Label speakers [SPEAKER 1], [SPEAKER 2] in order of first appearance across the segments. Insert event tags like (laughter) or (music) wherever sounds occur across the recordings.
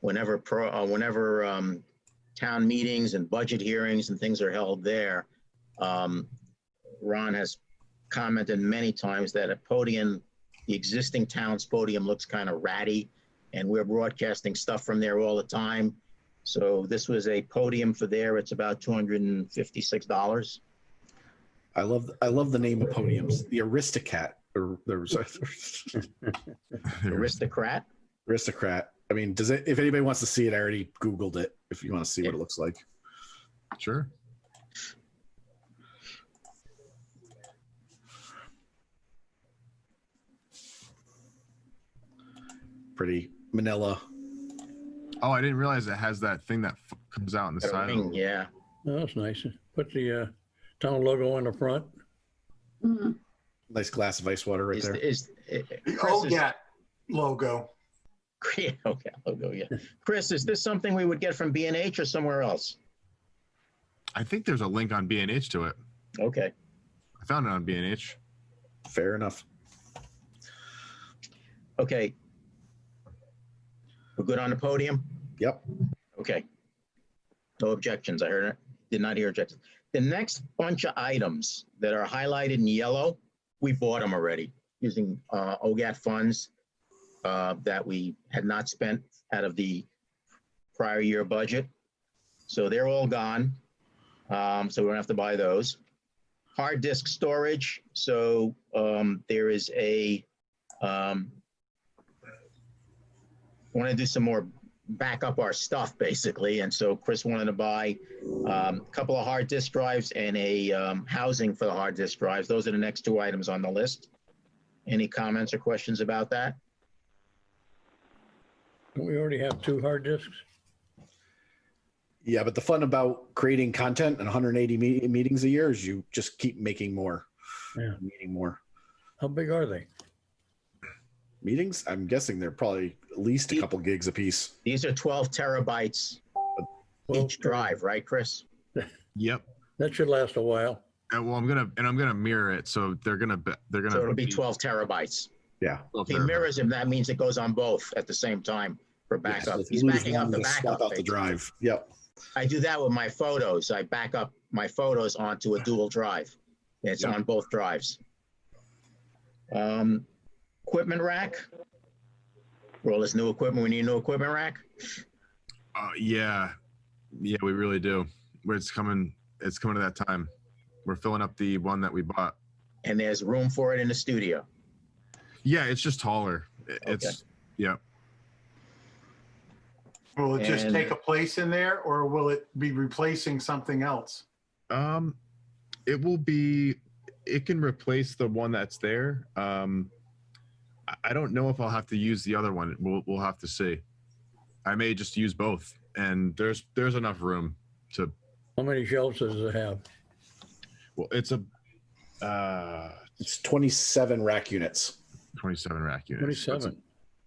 [SPEAKER 1] whenever pro, uh, whenever, um, town meetings and budget hearings and things are held there, um, Ron has commented many times that a podium, the existing town's podium looks kind of ratty, and we're broadcasting stuff from there all the time. So this was a podium for there. It's about two hundred and fifty-six dollars.
[SPEAKER 2] I love I love the name of podiums. The Aristocat or the
[SPEAKER 1] Aristocrat.
[SPEAKER 2] (laughs) Aristocrat. I mean, does it? If anybody wants to see it, I already Googled it. If you want to see what it looks like,
[SPEAKER 3] Sure.
[SPEAKER 2] pretty Manila.
[SPEAKER 3] Oh, I didn't realize it has that thing that f- comes out on the
[SPEAKER 1] Got a
[SPEAKER 3] side.
[SPEAKER 1] ring,
[SPEAKER 3] Of it.
[SPEAKER 1] Yeah.
[SPEAKER 4] Oh, that's nice. Put the uh, town logo on the front.
[SPEAKER 5] Mm.
[SPEAKER 2] Nice glass of ice water right
[SPEAKER 1] Is,
[SPEAKER 2] there.
[SPEAKER 1] is, is
[SPEAKER 6] The
[SPEAKER 1] Chris is- (laughs)
[SPEAKER 6] OGAT logo.
[SPEAKER 1] Great. Okay, I'll go. Yeah, Chris, is this something we would get from B and H or somewhere else?
[SPEAKER 3] I think there's a link on B&H to it.
[SPEAKER 1] Okay.
[SPEAKER 3] I found it on B&H.
[SPEAKER 2] Fair enough.
[SPEAKER 1] Okay. We're good on the podium?
[SPEAKER 2] Yep.
[SPEAKER 1] Okay. No objections. I heard it. Did not hear objections. The next bunch of items that are highlighted in yellow, we bought them already using uh, OGAT funds uh, that we had not spent out of the prior year budget. So they're all gone. Um, So we don't have to buy those. Hard disk storage. So um, there is a um, want to do some more back up our stuff basically and so chris wanted to buy um, a couple of hard disk drives and a um, housing for the hard disk drives those are the next two items on the list any comments or questions about that
[SPEAKER 4] Don't we already have two hard disks?
[SPEAKER 2] Yeah, but the fun about creating content and 180 me- meetings a year is you just keep making more,
[SPEAKER 4] Yeah.
[SPEAKER 2] meeting more
[SPEAKER 4] How big are they?
[SPEAKER 2] meetings. I'm guessing they're probably at least a couple gigs a piece.
[SPEAKER 1] these are 12 terabytes
[SPEAKER 4] Well,
[SPEAKER 1] each drive right chris
[SPEAKER 3] Yep.
[SPEAKER 4] that should last a while.
[SPEAKER 3] And, Uh, well, I'm gonna and I'm gonna mirror it, so they're gonna be, they're gonna
[SPEAKER 1] so it'll be 12 terabytes
[SPEAKER 2] Yeah.
[SPEAKER 3] 12
[SPEAKER 1] he
[SPEAKER 3] there.
[SPEAKER 1] mirrors him that means it goes on both at the same time for
[SPEAKER 2] Yeah,
[SPEAKER 1] backup
[SPEAKER 2] so if you
[SPEAKER 1] he's
[SPEAKER 2] lose
[SPEAKER 1] backing up
[SPEAKER 2] one,
[SPEAKER 1] the backup
[SPEAKER 2] just swap out the
[SPEAKER 1] basically.
[SPEAKER 2] drive. Yep.
[SPEAKER 1] I do that with my photos. I back up my photos onto a dual drive. It's
[SPEAKER 2] Yeah.
[SPEAKER 1] on both drives. Um, equipment rack. For all this new equipment, we need a new equipment rack.
[SPEAKER 3] Uh, yeah, yeah, we really do. Where it's coming, it's coming to that time. We're filling up the one that we bought.
[SPEAKER 1] And there's room for it in the studio.
[SPEAKER 3] Yeah, it's just taller. It- It's yeah.
[SPEAKER 6] Will it just
[SPEAKER 1] And-
[SPEAKER 6] take a place in there or will it be replacing something else?
[SPEAKER 3] Um, it will be. It can replace the one that's there. Um, I- I don't know if I'll have to use the other one. We'll we'll have to see. I may just use both, and there's there's enough room to.
[SPEAKER 4] How many shelves does it have?
[SPEAKER 3] Well, it's a uh
[SPEAKER 2] It's 27 rack units.
[SPEAKER 3] 27 rack unit. so it's a-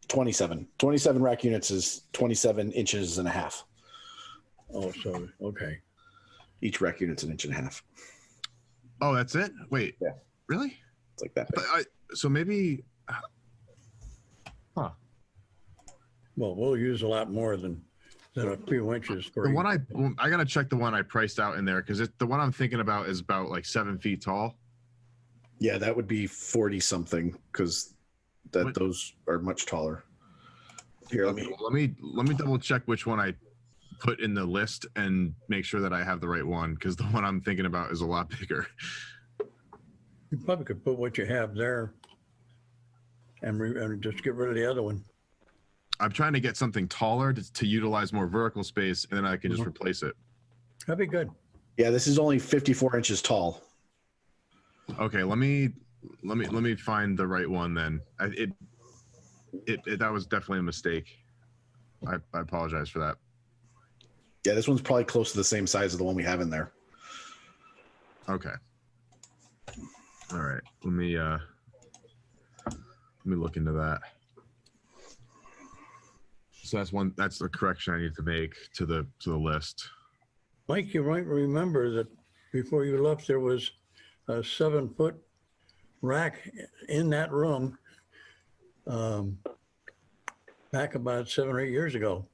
[SPEAKER 4] Twenty-seven.
[SPEAKER 2] 27 27 rack units is 27 inches and a half
[SPEAKER 4] Oh, so, okay.
[SPEAKER 2] each rack unit's an inch and a half
[SPEAKER 3] Oh, that's it. Wait.
[SPEAKER 2] Yeah.
[SPEAKER 3] Really?
[SPEAKER 2] it's like that
[SPEAKER 3] But I, so maybe
[SPEAKER 4] Well, we'll use a lot more than, than a few inches for.
[SPEAKER 3] the one
[SPEAKER 4] each.
[SPEAKER 3] I I gotta check the one I priced out in there because the one I'm thinking about is about like seven feet tall.
[SPEAKER 2] yeah that would be 40 something because that
[SPEAKER 3] What-
[SPEAKER 2] those are much taller here let
[SPEAKER 3] Okay,
[SPEAKER 2] me
[SPEAKER 3] well, let me let me double check which one I put in the list and make sure that I have the right one because the one I'm thinking about is a lot (laughs) bigger.
[SPEAKER 4] You probably could put what you have there and, re- and just get rid of the other one.
[SPEAKER 3] I'm trying to get something taller to, to utilize more vertical space, and then I can just
[SPEAKER 4] Mhm.
[SPEAKER 3] replace it.
[SPEAKER 4] That'd be good.
[SPEAKER 2] yeah this is only 54 inches tall
[SPEAKER 3] Okay, let me let me let me find the right one then. I, it, it it that was definitely a mistake. I, I apologize for that.
[SPEAKER 2] yeah this one's probably close to the same size as the one we have in there
[SPEAKER 3] Okay. All right. Let me uh let me look into that. So that's one that's the correction I need to make to the to the list.
[SPEAKER 4] Mike, you might remember that before you left, there was a seven-foot rack in that room um, back about seven or eight years ago.